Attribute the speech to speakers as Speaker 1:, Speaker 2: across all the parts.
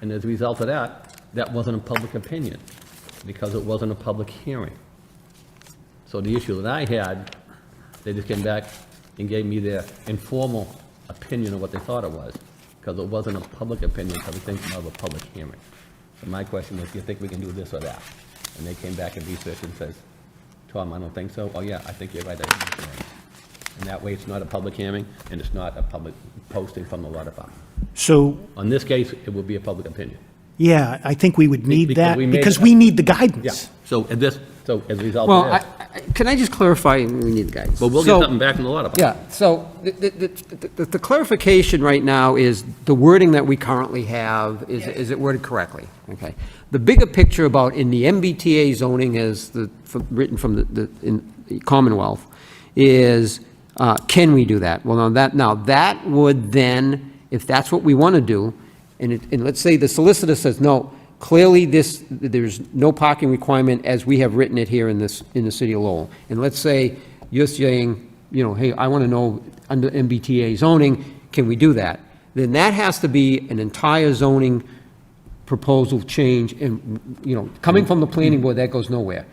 Speaker 1: And as a result of that, that wasn't a public opinion, because it wasn't a public hearing. So the issue that I had, they just came back and gave me their informal opinion of what they thought it was, because it wasn't a public opinion, because it came out of a public hearing. So my question was, do you think we can do this or that? And they came back and researched and says, Tom, I don't think so. Oh, yeah, I think you're right. I think you're right. And that way, it's not a public hearing, and it's not a public posting from the water department.
Speaker 2: So,
Speaker 1: On this case, it will be a public opinion.
Speaker 2: yeah, I think we would need
Speaker 1: because
Speaker 2: that,
Speaker 1: we made
Speaker 2: because
Speaker 1: it-
Speaker 2: we need the guidance.
Speaker 1: So at this, so as a result
Speaker 3: Well,
Speaker 1: of
Speaker 3: I-
Speaker 1: this,
Speaker 3: I- can I just clarify, and we need guidance.
Speaker 1: but we'll get
Speaker 3: So-
Speaker 1: something back from the water department.
Speaker 3: Yeah, so the- the- the the- the clarification right now is the wording that we currently have, is is it worded correctly? Okay. The bigger picture about in the MBTA zoning as the, from- written from the- the in the Commonwealth, is uh, can we do that? Well, now that, now that would then, if that's what we want to do, and it, and let's say the solicitor says, no, clearly this, there's no parking requirement as we have written it here in this, in the city of Lowell. And let's say you're saying, you know, hey, I want to know under MBTA zoning, can we do that? Then that has to be an entire zoning proposal change and, you know, coming from the planning board, that goes nowhere.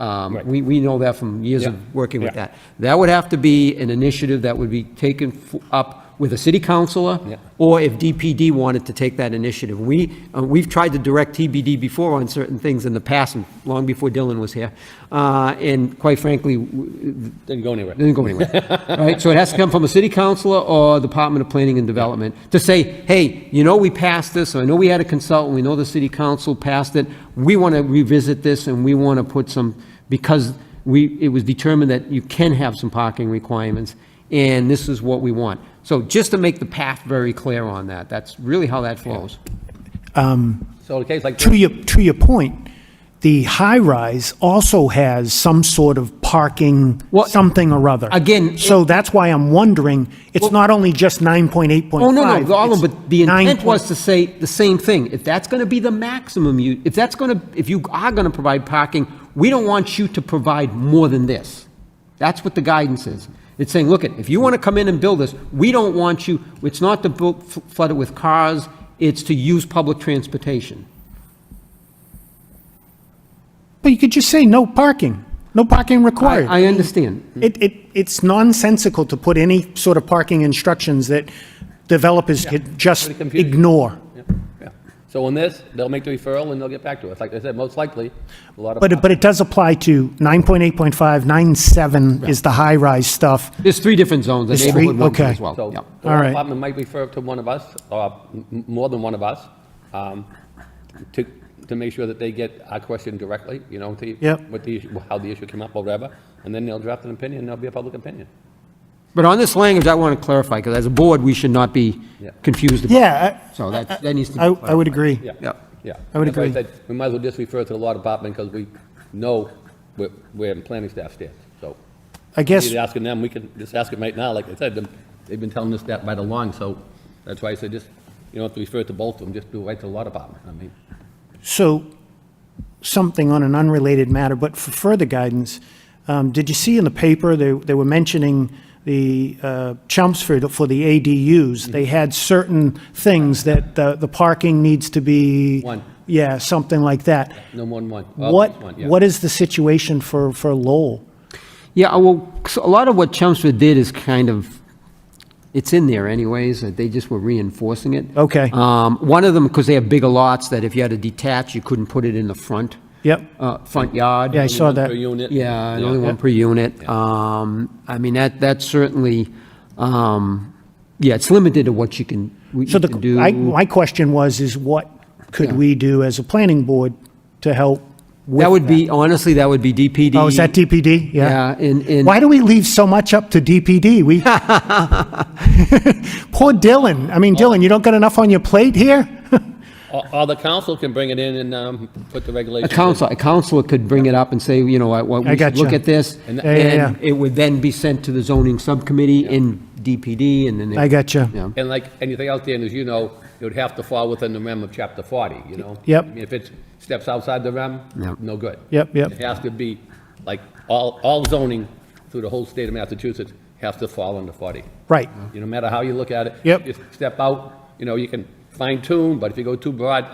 Speaker 3: Um, we, we know that from years of working with
Speaker 1: Mm-hmm. Yeah.
Speaker 3: that. That would have to be an initiative that would be taken f- up with a city
Speaker 1: Yeah.
Speaker 3: councilor, or if DPD wanted to take that initiative. We, uh, we've tried to direct TBD before on certain things in the past, and long before Dylan was here. Uh, and quite frankly, w-
Speaker 1: Didn't go anywhere.
Speaker 2: Mm.
Speaker 3: it didn't go anywhere, right? So it has to come from a city councilor or Department of Planning and Development to say, hey, you know, we passed this, I know we had a consultant, we know the city council passed it, we want to revisit this and we want to put some, because we, it was determined that you can have some parking requirements and this is what we want. So just to make the path very clear on that, that's really how that flows.
Speaker 1: So in a case like
Speaker 2: To
Speaker 1: this,
Speaker 2: your, to your point, the high-rise also has some sort of parking,
Speaker 3: Well,
Speaker 2: something or other.
Speaker 3: again,
Speaker 2: So that's why I'm wondering, it's not only just 9.8.5.
Speaker 3: Oh, no, no, all of
Speaker 2: it's
Speaker 3: them, but the intent
Speaker 2: 9
Speaker 3: was to say the same thing. If that's going to be the maximum you, if that's going to, if you are going to provide parking, we don't want you to provide more than this. That's what the guidance is. It's saying, look, it, if you want to come in and build this, we don't want you, it's not to bu- f- flood it with cars, it's to use public transportation.
Speaker 2: But you could just say no parking, no parking
Speaker 3: I,
Speaker 2: required.
Speaker 3: I understand.
Speaker 2: It, it, it's nonsensical to put any sort of parking instructions that developers could just
Speaker 1: Pretty confusing.
Speaker 2: ignore.
Speaker 1: so on this, they'll make the referral and they'll get back to us. Like I said, most likely, a lot of.
Speaker 2: But, it- but it does apply to 9.8.5, 9.7 is the high-rise stuff.
Speaker 3: There's three different zones, the
Speaker 2: There's three?
Speaker 3: neighborhood ones
Speaker 2: Okay.
Speaker 3: as well.
Speaker 1: So
Speaker 3: yeah.
Speaker 1: the
Speaker 2: All
Speaker 1: law
Speaker 2: right.
Speaker 1: department might refer to one of us, or m- m- more than one of us, um, to, to make sure that they get our question directly, you know, to,
Speaker 2: Yep.
Speaker 1: what the, issue- how the issue came up or whatever, and then they'll draft an opinion, there'll be a public opinion.
Speaker 3: But on this language, I want to clarify, because as a board, we should not be
Speaker 1: Yeah.
Speaker 3: confused about.
Speaker 2: Yeah,
Speaker 3: So that, that needs to be
Speaker 2: I, I I would
Speaker 3: clarified.
Speaker 2: agree.
Speaker 1: Yeah.
Speaker 3: Yeah.
Speaker 1: Yeah.
Speaker 2: I would
Speaker 1: That's why
Speaker 2: agree.
Speaker 1: said We might as well just refer to the law department, because we know where, where the planning staff stands, so.
Speaker 2: I guess,
Speaker 1: Either asking them, we can just ask them right now, like I said, them- they've been telling us that right along, so that's why I said just, you don't have to refer to both of them, just do it right to the law department, I mean.
Speaker 2: so, something on an unrelated matter, but for further guidance, um, did you see in the paper, they, they were mentioning the uh, Chelmsford for the ADUs?
Speaker 1: Mm-hmm.
Speaker 2: They had certain things that the, the parking needs to be.
Speaker 1: One.
Speaker 2: Yeah, something like that.
Speaker 1: No more than one. Well, at least one,
Speaker 2: What,
Speaker 1: yeah.
Speaker 2: what is the situation for, for Lowell?
Speaker 3: Yeah, uh, well, so a lot of what Chelmsford did is kind of, it's in there anyways, that they just were reinforcing it.
Speaker 2: Okay.
Speaker 3: Um, One of them, because they have bigger lots, that if you had to detach, you couldn't put it in the front.
Speaker 2: Yep.
Speaker 3: Uh, front yard.
Speaker 2: Yeah, I saw
Speaker 1: Per
Speaker 2: that.
Speaker 1: unit?
Speaker 3: Yeah, and only one per unit. Um, I mean, that, that certainly, um, yeah, it's limited to what you can, what
Speaker 2: So
Speaker 3: you can do.
Speaker 2: the, I, my question was, is what could
Speaker 3: Yeah.
Speaker 2: we do as a planning board to help with?
Speaker 3: That would be, honestly, that would be DPD.
Speaker 2: Oh, is that DPD? Yeah.
Speaker 3: Yeah, and, and.
Speaker 2: Why do we leave so much up to DPD? We, poor Dylan. I mean,
Speaker 3: Oh.
Speaker 2: Dylan, you don't got enough on your plate here?
Speaker 1: Or, or the council can bring it in and, um, put the
Speaker 3: A
Speaker 1: regulations. in.
Speaker 3: counselor, a counselor could bring it up and say, you know, I, what,
Speaker 2: I
Speaker 3: we should look
Speaker 2: gotcha.
Speaker 3: at this.
Speaker 1: And-
Speaker 2: Yeah, yeah,
Speaker 3: And it would then be sent to the zoning subcommittee in DPD and then. they-
Speaker 2: I gotcha.
Speaker 3: Yeah.
Speaker 1: And like anything else, Dan, as you know, it would have to fall within the realm of chapter forty, you know?
Speaker 2: Yep.
Speaker 1: I mean, If it steps outside the realm,
Speaker 3: Yep.
Speaker 1: no good.
Speaker 2: Yep, yep.
Speaker 1: It has to be, like, all, all zoning through the whole state of Massachusetts has to fall under forty.
Speaker 2: Right.
Speaker 1: You know, no matter how you look at it.
Speaker 2: Yep.
Speaker 1: Just step out, you know, you can fine tune, but if you go too broad,